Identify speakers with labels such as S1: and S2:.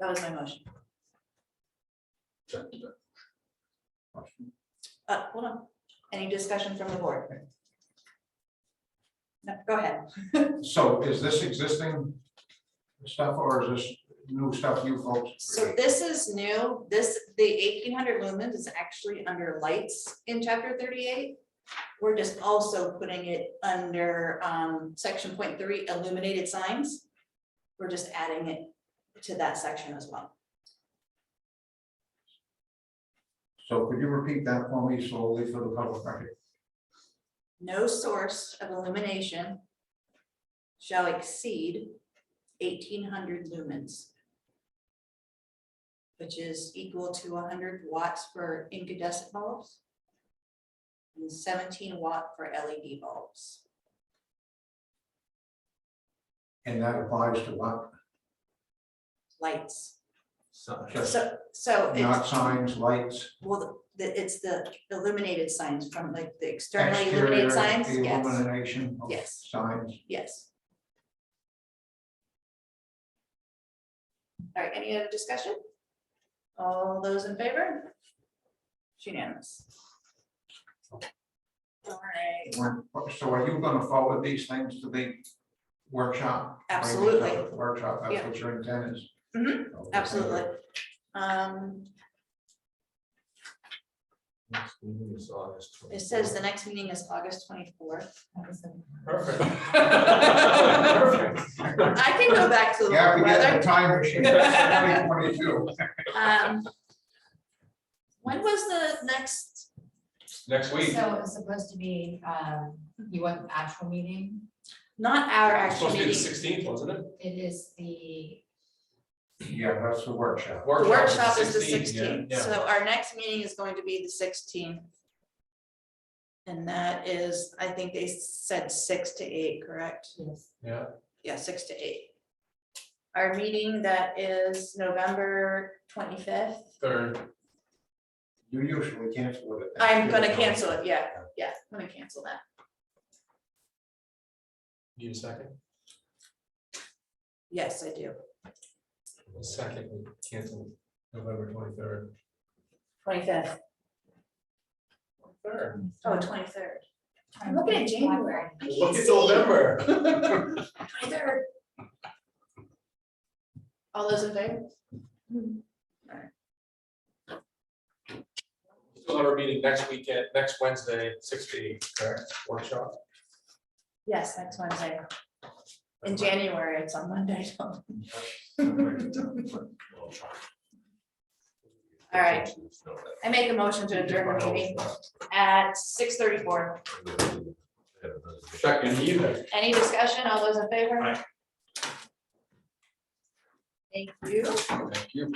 S1: That was my motion. Uh, hold on. Any discussion from the board? No, go ahead.
S2: So is this existing stuff or is this new stuff you folks?
S1: So this is new. This, the eighteen hundred lumens is actually under lights in chapter thirty-eight. We're just also putting it under, um, section point three illuminated signs. We're just adding it to that section as well.
S2: So could you repeat that for me slowly for the public record?
S1: no source of illumination shall exceed eighteen hundred lumens, which is equal to hundred watts for incandescent bulbs and seventeen watt for LED bulbs.
S2: And that applies to what?
S1: Lights,
S2: Just
S1: so, so
S2: Not
S1: it's,
S2: signs, lights,
S1: well, the, it's the illuminated signs from like the externally
S2: exterior
S1: illuminated signs, yes,
S2: illumination of
S1: Yes.
S2: signs.
S1: yes. All right, any other discussion? All those in favor? It's Unanimous. All right,
S2: We're- So are you gonna forward these things to the workshop?
S1: Absolutely.
S2: Workshop, that's
S1: Yeah.
S2: what your intent is?
S1: Mhm,
S2: Okay, thank you.
S1: absolutely. Um, it says the next meeting is August twenty-fourth.
S3: Perfect.
S1: I can go back to the
S2: Yeah, we get
S1: weather.
S2: the time machine, twenty twenty-two.
S1: Um, When was the next,
S3: Next week,
S4: So it's supposed to be, um, you want the actual meeting?
S1: not our
S3: it's
S1: actual
S3: supposed to be the
S1: meeting,
S3: sixteenth, wasn't it?
S4: It is the,
S2: Yeah, that's the workshop.
S1: the workshop is the
S3: 16th, yeah,
S1: sixteenth,
S3: yeah.
S1: so our next meeting is going to be the sixteenth. And that is, I think they said six to eight, correct?
S4: yes,
S3: Yeah,
S1: Yeah, six to eight. Our meeting that is November twenty-fifth,
S3: third,
S2: You usually cancel it. at
S1: I'm
S2: that
S1: gonna
S2: time.
S1: cancel it, yeah, yeah, I'm gonna cancel that.
S3: need a second,
S1: Yes, I do.
S3: A second, we cancel November twenty-third.
S1: Twenty-fifth.
S3: Third.
S1: Oh, twenty-third. I'm looking at January. I can't
S3: Look at
S1: see.
S3: November.
S1: Twenty-third. All those in favor?
S3: Still have our meeting next weekend, next Wednesday, six to eight, correct, workshop?
S1: Yes, next Wednesday. In January, it's on Monday. so- All right. I make a motion to adjourn the meeting at six thirty-four.
S3: Second either.
S1: Any discussion? All those in favor?
S3: Aye.
S1: Thank you.
S3: Thank you.